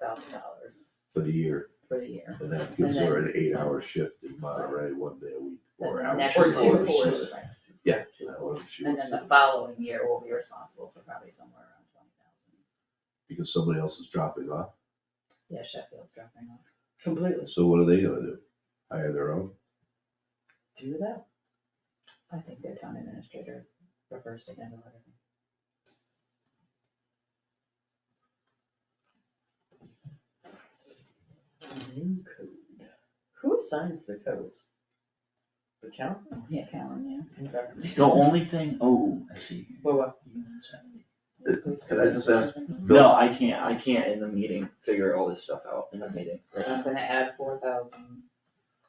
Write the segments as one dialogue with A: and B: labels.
A: thousand dollars
B: for the year,
A: for the year.
B: and that gives her an eight-hour shift in Monterey, one day a week, or
A: And
B: hour.
A: the next
B: shift,
A: two
B: hour
A: quarters,
B: shift.
A: right.
B: Yeah, that one, she
A: And
B: works,
A: then the following year, we'll be responsible for probably somewhere around twenty thousand.
B: because somebody else is dropping off,
A: Yeah, Sheffield's dropping off completely.
B: so what are they gonna do? Hire their own?
A: Do that. I think their town administrator prefers to handle everything.
C: New code. Who assigns the codes? The county?
A: Oh, Yeah, Callan,
C: Okay.
D: The only thing, oh, I see.
C: Well, uh, what?
A: yeah.
B: Can I just ask-
D: No, I can't, I can't in the meeting figure all this stuff out in the meeting.
A: I'm gonna add four thousand.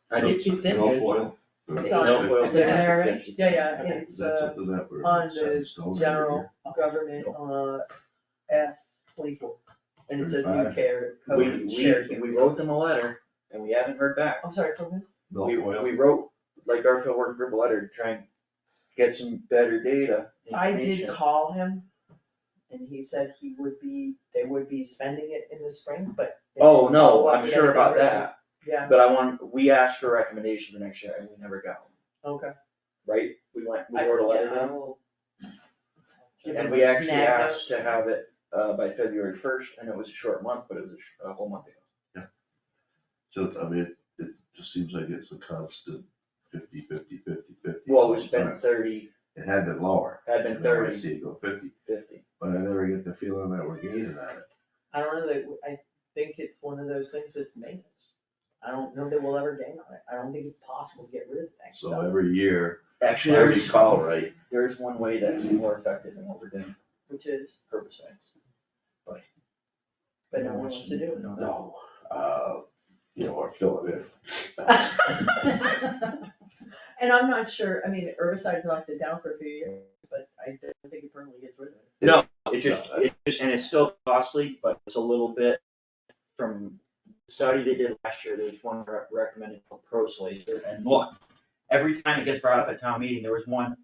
D: I need,
A: It's in
B: No
A: there.
B: foil?
A: It's
C: on-
B: Okay.
C: No foil.
A: Is it in there already?
C: Yeah, yeah,
A: Okay.
B: Is
C: it's
B: that
C: uh,
B: something that we're
C: on
B: set in
C: the
B: stone every
C: general
B: year?
C: government, uh, F twenty-four. And it says
B: Thirty-five.
C: UK or
D: we,
C: code shared
D: we,
C: here.
D: we wrote them a letter and we haven't heard back.
C: I'm sorry, from who?
B: No
D: We,
B: foil.
D: we wrote, like Garfield Work Group a letter to try and get some better data,
C: I did
D: information.
C: call him and he said he would be, they would be spending it in the spring, but. they
D: Oh,
C: didn't
D: no,
C: follow up
D: I'm
C: with
D: sure about
C: anything.
D: that,
C: Yeah,
D: but I want, we asked for a recommendation for next year and we never got one,
C: okay.
D: right? We went, we
C: I-
D: wrote a letter
C: yeah,
D: to
C: I
D: them.
C: will- Give
D: And
C: him
D: we
C: a
D: actually
C: nag note.
D: asked to have it uh by February first, and it was a short month, but it was a sh- a whole month ago.
B: So it's, I mean, it- it just seems like it's a constant fifty, fifty, fifty, fifty.
D: Well,
B: all
D: it's
B: the
D: been
B: time.
D: thirty,
B: It had been lower.
D: had been
B: and now I
D: thirty,
B: see it go fifty,
D: fifty.
B: but I never get the feeling that we're gaining on it.
C: I don't know, that I think it's one of those things that's maintenance. I don't know that we'll ever gain on it, I don't think it's possible to get rid of that
B: So
C: stuff,
B: every year, if
D: Actually,
B: I
D: there's,
B: recall right,
D: there's one way that's more effective than what we're doing,
C: which is,
D: herbicides.
C: but no one wants to do it.
B: no, uh, you know, or fill it in.
C: And I'm not sure, I mean, herbicides knocks it down for a few years, but I don't think it permanently gets rid of it.
D: It just, it just, and it's still costly, but it's a little bit from the study they did last year, there's one re- recommended for proslaser, and look, every time it gets brought up at town meeting, there was one,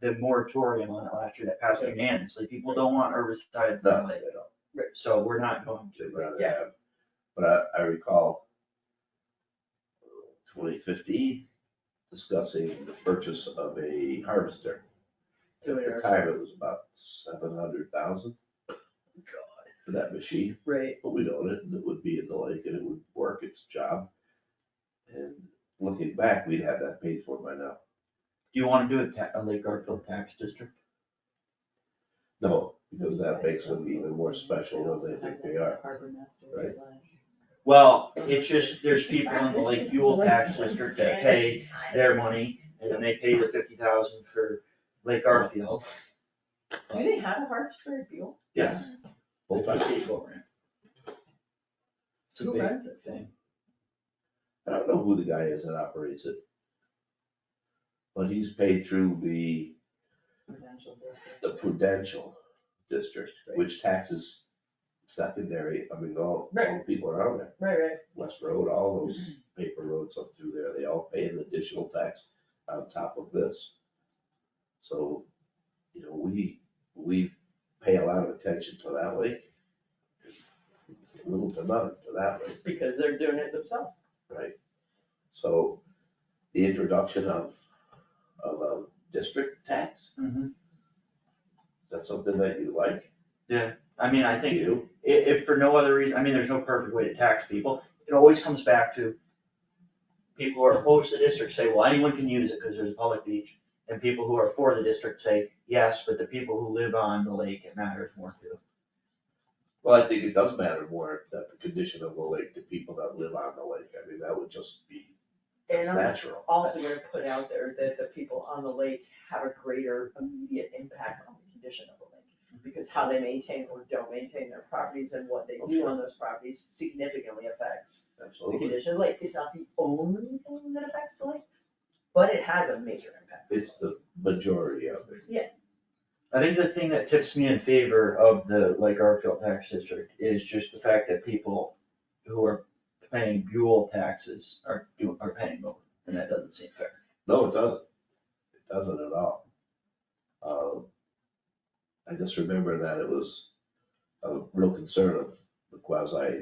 D: the moratorium on it last year that passed unanimously, people don't want herbicides
B: No,
D: on
B: they
D: it,
B: don't.
D: so we're not going to.
B: They'd rather
D: Yeah.
B: have, but I, I recall twenty fifteen discussing the purchase of a harvester. At
C: Doing
B: the
C: it
B: time, it
C: ourselves.
B: was about seven hundred thousand for that machine,
C: Right,
B: but we'd own it, and it would be in the lake, and it would work its job. And looking back, we'd have that paid for by now.
D: Do you wanna do a ta- a Lake Garfield tax district?
B: No, because that makes them even more special than they think they are.
A: Harbor
B: Right.
A: Masters slash.
D: Well, it's just, there's people in the Lake Buell tax district that pay their money, and then they pay the fifty thousand for Lake Garfield.
C: do they have a harvester at Buell?
D: Yes.
B: Full
D: It's a
B: time.
D: state program. It's a
C: Who
D: big
C: runs it?
D: thing.
B: I don't know who the guy is that operates it. But he's paid through the,
A: Prudential district.
B: the Prudential District, which taxes secondary, I mean, all, all the
C: Right.
B: people around there.
C: Right, right,
B: West Road, all those paper roads up through there, they all pay an additional tax on top of this. So, you know, we, we pay a lot of attention to that lake. Little to none to that lake.
C: because they're doing it themselves.
B: Right. So the introduction of, of a district tax,
D: Mm-hmm.
B: is that something that you like?
D: I mean, I think
B: You?
D: i- if for no other reason, I mean, there's no perfect way to tax people, it always comes back to people who are opposed to the district say, well, anyone can use it because there's a public beach, and people who are for the district say, yes, but the people who live on the lake, it matters more to.
B: Well, I think it does matter more that the condition of the lake, to people that live on the lake, I mean, that would just be, it's
C: And I'm
B: natural.
C: also gonna put out there that the people on the lake have a greater immediate impact on the condition of the lake. Because how they maintain or don't maintain their properties and what they do on those properties significantly affects the
B: Absolutely.
C: condition of the lake. It's not the only thing that affects the lake, but it has a major impact.
B: It's the majority of it.
D: I think the thing that tips me in favor of the Lake Garfield tax district is just the fact that people who are paying Buell taxes are do, are paying both, and that doesn't seem fair.
B: No, it doesn't. It doesn't at all. Um, I just remember that it was a real concern of the quasi